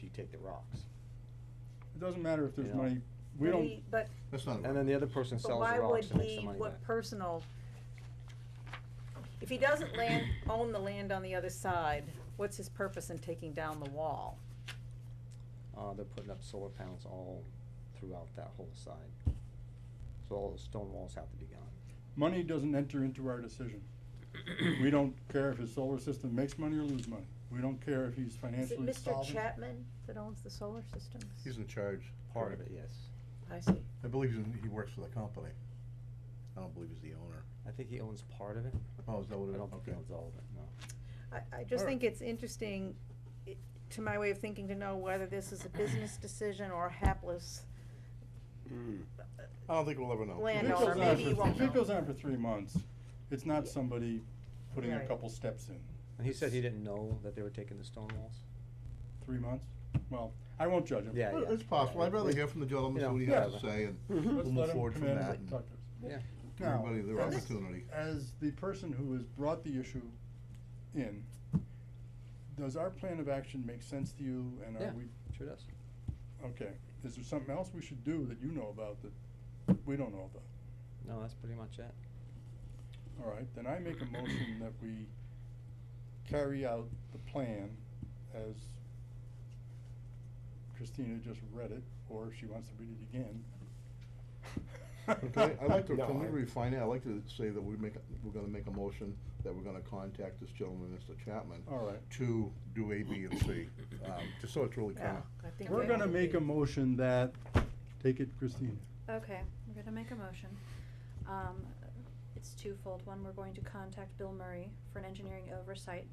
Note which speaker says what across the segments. Speaker 1: you take the rocks.
Speaker 2: It doesn't matter if
Speaker 1: You
Speaker 2: there's
Speaker 1: know.
Speaker 2: money, we
Speaker 3: But
Speaker 2: don't,
Speaker 3: he- But,
Speaker 4: That's not. a
Speaker 1: And then the other person
Speaker 3: but
Speaker 1: sells
Speaker 3: why
Speaker 1: the
Speaker 3: would
Speaker 1: rocks and makes the
Speaker 3: he,
Speaker 1: money
Speaker 3: what
Speaker 1: back.
Speaker 3: personal, if he doesn't land, own the land on the other side, what's his purpose in taking down the wall?
Speaker 1: Uh, they're putting up solar panels all throughout that whole side. So all the stone walls have to be gone.
Speaker 2: money doesn't enter into our decision. We don't care if his solar system makes money or lose money. We don't care if he's
Speaker 3: Is it
Speaker 2: financially
Speaker 3: Mr.
Speaker 2: solvent.
Speaker 3: Chapman that owns the solar systems?
Speaker 4: He's in charge.
Speaker 1: Part of it, yes.
Speaker 3: I see.
Speaker 4: I believe he's in, he works for the company. I don't believe he's the owner.
Speaker 1: I think he owns part of it.
Speaker 4: Oh, is that what
Speaker 1: I
Speaker 4: it is?
Speaker 1: don't think he
Speaker 4: Okay.
Speaker 1: owns all of it, no.
Speaker 3: I, I just
Speaker 4: Alright.
Speaker 3: think it's interesting, i- to my way of thinking, to know whether this is a business decision or a hapless
Speaker 2: Mm.
Speaker 4: I don't think we'll ever know.
Speaker 2: If it
Speaker 3: Landowner,
Speaker 2: goes on
Speaker 3: maybe
Speaker 2: for-
Speaker 3: he won't
Speaker 2: If it
Speaker 3: know.
Speaker 2: goes on for three months, it's not
Speaker 3: Yeah.
Speaker 2: somebody putting a
Speaker 3: Right.
Speaker 2: couple steps in.
Speaker 1: And he said he didn't know that they were taking the stone walls?
Speaker 2: Three months? Well, I won't judge him.
Speaker 1: Yeah,
Speaker 4: Well,
Speaker 1: yeah.
Speaker 4: It's possible. I'd rather hear from the gentleman, see what he has
Speaker 2: Yeah. Mm-hmm.
Speaker 4: to say,
Speaker 1: Mhm.
Speaker 4: and we'll
Speaker 2: Let's let
Speaker 4: move
Speaker 2: him
Speaker 4: forward
Speaker 2: come
Speaker 4: from
Speaker 2: in and
Speaker 4: that. and
Speaker 2: talk to us.
Speaker 1: Yeah.
Speaker 4: give
Speaker 2: Now,
Speaker 4: Everybody their
Speaker 2: as-
Speaker 4: opportunity.
Speaker 2: As the person who has brought the issue in, does our plan of action make sense to you and
Speaker 1: Yeah.
Speaker 2: are we,
Speaker 1: Sure does.
Speaker 2: okay, is there something else we should do that you know about that we don't know about?
Speaker 1: No, that's pretty much it.
Speaker 2: All right, then I make a motion that we carry out the plan as Christina just read it, or if she wants to read it again.
Speaker 4: Okay, I'd like to,
Speaker 2: No,
Speaker 4: can we
Speaker 2: I-
Speaker 4: refine it? I'd like to say that we make, we're gonna make a motion that we're gonna contact this gentleman, Mr. Chapman,
Speaker 2: All right.
Speaker 4: to do A, B, and C, um, just so it's really
Speaker 3: Yeah,
Speaker 4: kinda.
Speaker 3: uh, I think
Speaker 2: We're
Speaker 3: that
Speaker 2: gonna
Speaker 3: would
Speaker 2: make
Speaker 3: be-
Speaker 2: a motion that, take it Christina.
Speaker 5: Okay, we're gonna make a motion. Um, it's twofold. One, we're going to contact Bill Murray for an engineering oversight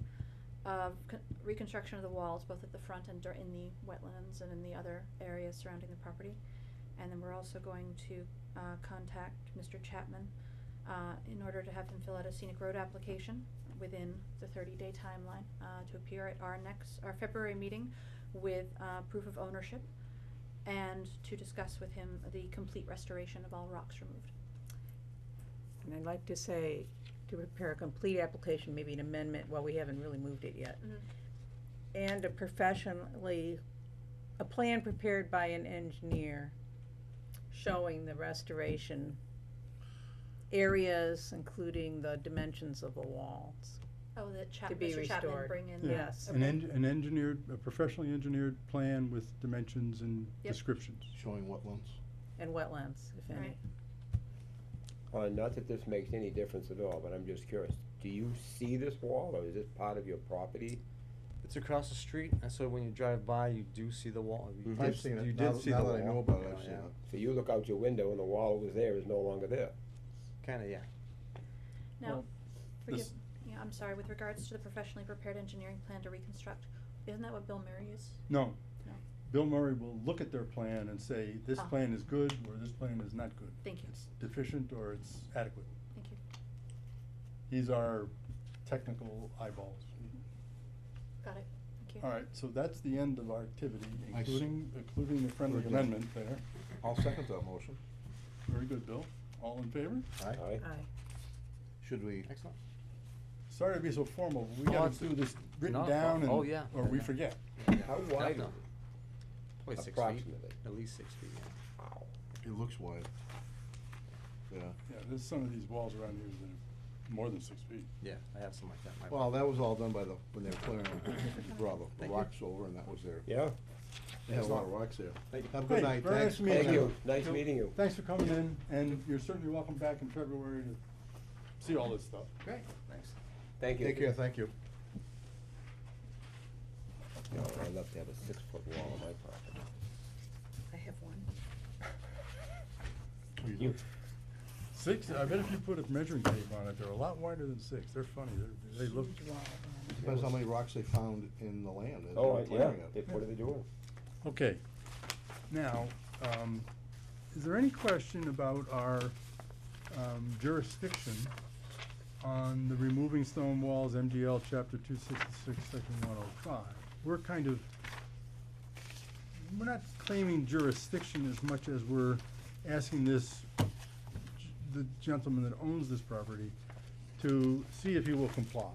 Speaker 5: of con- reconstruction of the walls, both at the front and dur- in the wetlands and in the other areas surrounding the property. And then we're also going to, uh, contact Mr. Chapman, uh, in order to have him fill out a scenic road application within the thirty-day timeline, uh, to appear at our next, our February meeting with, uh, proof of ownership and to discuss with him the complete restoration of all rocks removed.
Speaker 3: And I'd like to say, to prepare a complete application, maybe an amendment, well, we haven't really moved it yet. And a professionally, a plan prepared by an engineer showing the restoration areas, including the dimensions of the walls.
Speaker 5: Oh, the
Speaker 3: To
Speaker 5: Chap,
Speaker 3: be
Speaker 5: Mr. Chapman
Speaker 3: restored.
Speaker 5: bring in the.
Speaker 3: Yeah. Yes.
Speaker 2: An
Speaker 5: okay.
Speaker 2: en- an engineered, a professionally engineered plan with dimensions and
Speaker 5: Yep.
Speaker 2: descriptions.
Speaker 4: Showing wetlands.
Speaker 3: And wetlands, if any.
Speaker 5: Right.
Speaker 6: Uh, not that this makes any difference at all, but I'm just curious, do you see this wall, or is this part of your property?
Speaker 1: It's across the street, and so when you drive by, you do see the wall. You
Speaker 6: Mhm.
Speaker 2: Mm-hmm.
Speaker 1: did
Speaker 4: I've
Speaker 1: s-
Speaker 4: seen
Speaker 1: You
Speaker 4: it. Now,
Speaker 1: did see the
Speaker 4: now
Speaker 1: wall.
Speaker 4: that I know about it,
Speaker 1: Yeah,
Speaker 4: I've seen
Speaker 1: yeah.
Speaker 4: it.
Speaker 6: So you look out your window and the wall was there is no longer there.
Speaker 1: Kinda, yeah.
Speaker 5: Now,
Speaker 2: Well,
Speaker 5: forgive,
Speaker 2: this-
Speaker 5: yeah, I'm sorry, with regards to the professionally prepared engineering plan to reconstruct, isn't that what Bill Murray is?
Speaker 2: No.
Speaker 5: No.
Speaker 2: Bill Murray will look at their plan and say, this
Speaker 5: Ah.
Speaker 2: plan is good, or this plan is not good.
Speaker 5: Thank you.
Speaker 2: It's deficient, or it's adequate.
Speaker 5: Thank you,
Speaker 2: He's our technical eyeballs.
Speaker 5: got it, thank you.
Speaker 2: All right, so that's the end of our activity,
Speaker 4: I s-
Speaker 2: including, including the friendly
Speaker 4: Very good.
Speaker 2: amendment there.
Speaker 4: I'll second that motion.
Speaker 2: Very good, Bill. All in favor?
Speaker 4: Aye.
Speaker 6: All right?
Speaker 3: Aye.
Speaker 4: Should we,
Speaker 1: Excellent.
Speaker 2: Sorry to be so formal, but we
Speaker 1: Oh,
Speaker 2: gotta
Speaker 1: it's-
Speaker 2: do this
Speaker 1: no,
Speaker 2: written
Speaker 1: oh,
Speaker 2: down and,
Speaker 1: oh, yeah.
Speaker 2: or we forget.
Speaker 6: How wide is
Speaker 1: Definitely.
Speaker 6: it?
Speaker 1: Probably six feet.
Speaker 6: Approximately.
Speaker 1: At least six feet, yeah.
Speaker 4: it looks wide. Yeah.
Speaker 2: Yeah, there's some of these walls around here that are more than six feet.
Speaker 1: Yeah, I have some like that. in my-
Speaker 4: Well, that was all done by the, when they were clearing, they brought the
Speaker 1: Thank you.
Speaker 4: rocks over and that was there.
Speaker 6: Yeah,
Speaker 4: They had a lot of rocks there.
Speaker 1: Thank you.
Speaker 4: Have a good
Speaker 2: Hey,
Speaker 4: night,
Speaker 2: very
Speaker 4: thanks.
Speaker 2: nice meeting
Speaker 6: thank
Speaker 2: Yeah.
Speaker 6: you, nice meeting you.
Speaker 2: Thanks for coming in, and you're certainly welcome back in February to see all this stuff.
Speaker 1: Great, thanks.
Speaker 6: Thank you.
Speaker 4: Take care, thank you.
Speaker 6: You know, Oh, I'd love to have a six-foot wall on my property.
Speaker 3: I have one.
Speaker 6: You-
Speaker 2: Six, I bet if you put a measuring tape on it, they're a lot wider than six. They're funny, they're, they look.
Speaker 3: Huge wall around it.
Speaker 4: Depends how many rocks they found in the land as they
Speaker 6: Oh,
Speaker 4: were
Speaker 6: I- yeah,
Speaker 4: clearing
Speaker 6: they-
Speaker 4: it.
Speaker 6: what are they doing?
Speaker 2: Okay, now, um, is there any question about our um, jurisdiction on the removing stone walls, MGL chapter two sixty-six, section one oh five? We're kind of, we're not claiming jurisdiction as much as we're asking this, g- the gentleman that owns this property to see if he will comply.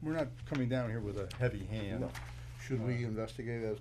Speaker 2: We're not coming down here with a heavy hand.
Speaker 4: Should we investigate as